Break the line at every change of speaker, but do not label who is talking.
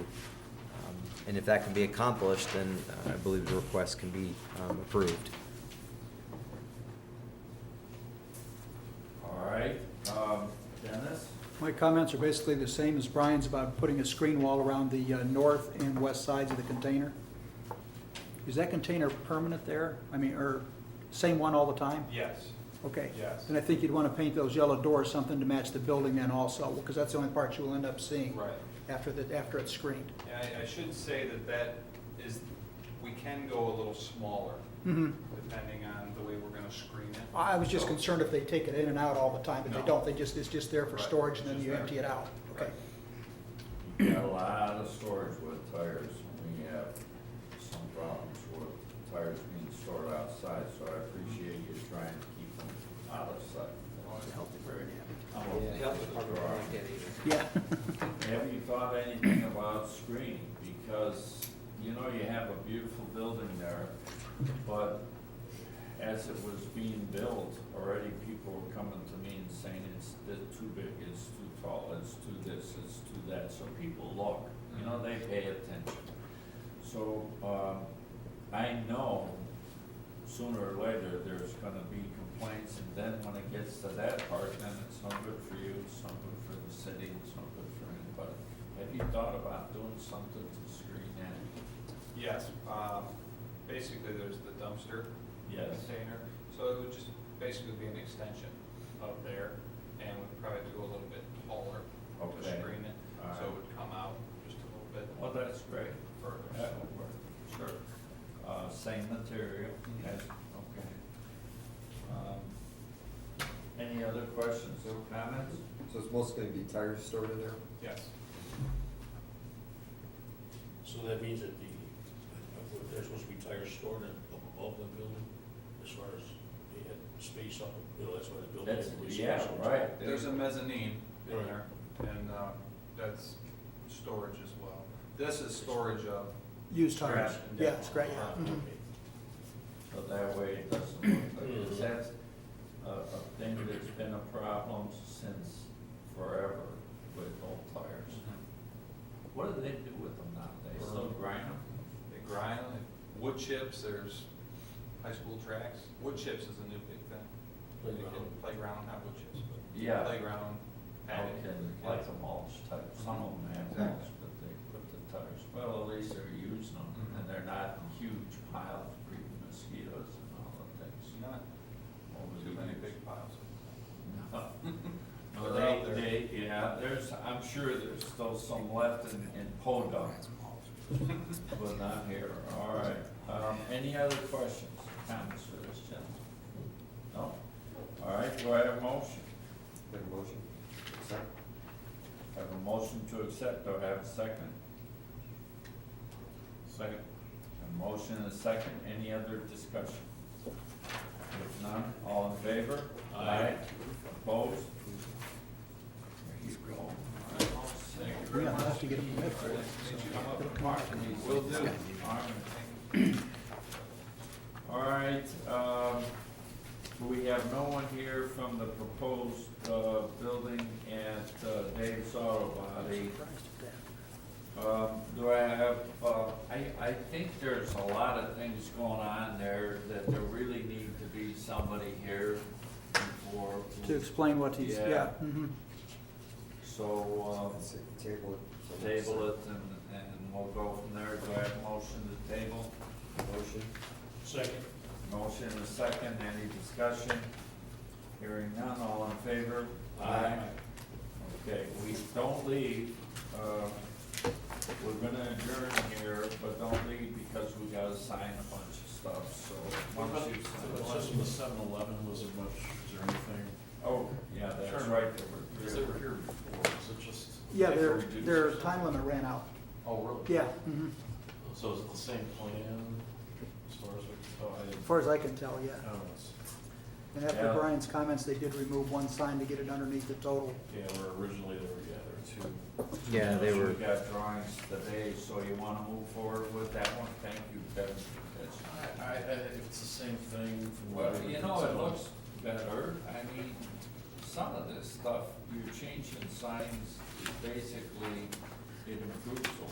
Um, And if that can be accomplished, then uh, I believe the request can be um, approved.
All right, um, Dennis?
My comments are basically the same as Brian's about putting a screen wall around the uh, north and west sides of the container. Is that container permanent there? I mean, or same one all the time?
Yes.
Okay.
Yes.
And I think you'd want to paint those yellow doors something to match the building then also, because that's the only part you will end up seeing.
Right.
After the, after it's screened.
Yeah, I, I should say that that is, we can go a little smaller,
Mhm.
depending on the way we're gonna screen it.
I was just
So-
concerned if they take it in and out all the time, but they
No.
don't, they just, it's just there for
Right.
storage and then
Just
you
there.
empty it out. Okay.
Right.
You got a lot of storage with tires, and we have some problems with tires being stored outside, so I appreciate you trying to keep them out of sight. I'm okay with the drawing.
Yeah.
Have you thought anything about screening? Because, you know, you have a beautiful building there, but as it was being built, already people were coming to me and saying it's th- too big, it's too tall, it's too this, it's too that. So people look, you know, they pay attention. So, um, I know sooner or later, there's gonna be complaints, and then when it gets to that part, then it's not good for you, it's not good for the city, it's not good for anybody. Have you thought about doing something to screen that?
Yes, um, basically, there's the dumpster container, so it would just basically be an extension of there, and we'd probably do a little bit taller to
Okay.
screen it, so it would come out just a little bit
Well, that's great.
further.
That will work. Sure. Uh, same material, yes, okay. Um, Any other questions or comments?
So it's mostly gonna be tires stored in there?
Yes,
So that means that the, there's supposed to be tires stored in- up above the building, as far as they had space up, you know, that's why the building.
That's,
had
yeah,
space.
right.
there's a mezzanine in
Right.
there, and uh, that's storage as well. This is storage of
Used tires.
Trash and
Yeah, it's great,
Ah,
yeah. Mhm.
okay.
So that way it doesn't look like, because that's a, a thing that's been a problem since forever with old tires. What do they do with them now? They still grind them?
They grind, they- wood chips, there's high school tracks. Wood chips is a new big thing. You can
Playground.
Playground, not wood chips, but
Yeah,
playground,
okay,
patio.
like a mulch type, some of them have
Exactly.
mulch, but they put the tires, well, at least they're using them, and they're not huge piles, breeding mosquitoes and all the things.
Not
over
too
the
many
years.
big piles.
No,
They're
they,
out there.
they, yeah, there's, I'm sure there's still some left in, in Podunk, but not here, all right. Um, any other questions, comments for this gentleman? No? All right, do I have a motion?
Make a motion? Second?
I Have a motion to accept, do I have a second? Second. A motion and a second, any other discussion? If none, all in favor? Aye. Opposed? There you go. All right, thank you
Mm-hmm.
very
Yeah, I'll
much.
have to get them red for it.
Mark, will do. All right, um, we have no one here from the proposed, uh, building at uh, Dave's Auto Body.
Surprised at that.
Um, do I have, uh, I, I think there's a lot of things going on there that there really need to be somebody here for.
To explain what he's,
Yeah.
yeah. mhm.
So, um,
Let's take the Table it.
table it and, and we'll go from there. Do I have a motion to table?
Motion?
Second.
Motion and a second, any discussion? Hearing none, all in favor?
Aye.
Okay, we don't leave, uh, we're gonna adjourn here, but don't leave because we gotta sign a bunch of stuff, so. once you sign-
Unless the seven eleven was as much, is there anything,
Oh, yeah, that's
Sure.
right, there
because
were
they
three.
were here before, is it just?
Yeah,
they
their,
reduced
their
or something?
time limit ran out.
Oh, really?
Yeah, mhm.
So is it the same plan as far as we, oh, I
as
didn't,
far as I can tell, yeah.
I don't know, it's-
And after
Yeah.
Brian's comments, they did remove one sign to get it underneath the total.
yeah, where originally there were, yeah, there were two.
Yeah, they were,
We got drawings today, so you wanna move forward with that one? Thank you, Kevin. That's-
I, I, if it's the same thing from what.
Well, you know, it looks better, I mean, some of this stuff, you're changing signs, basically, it improves a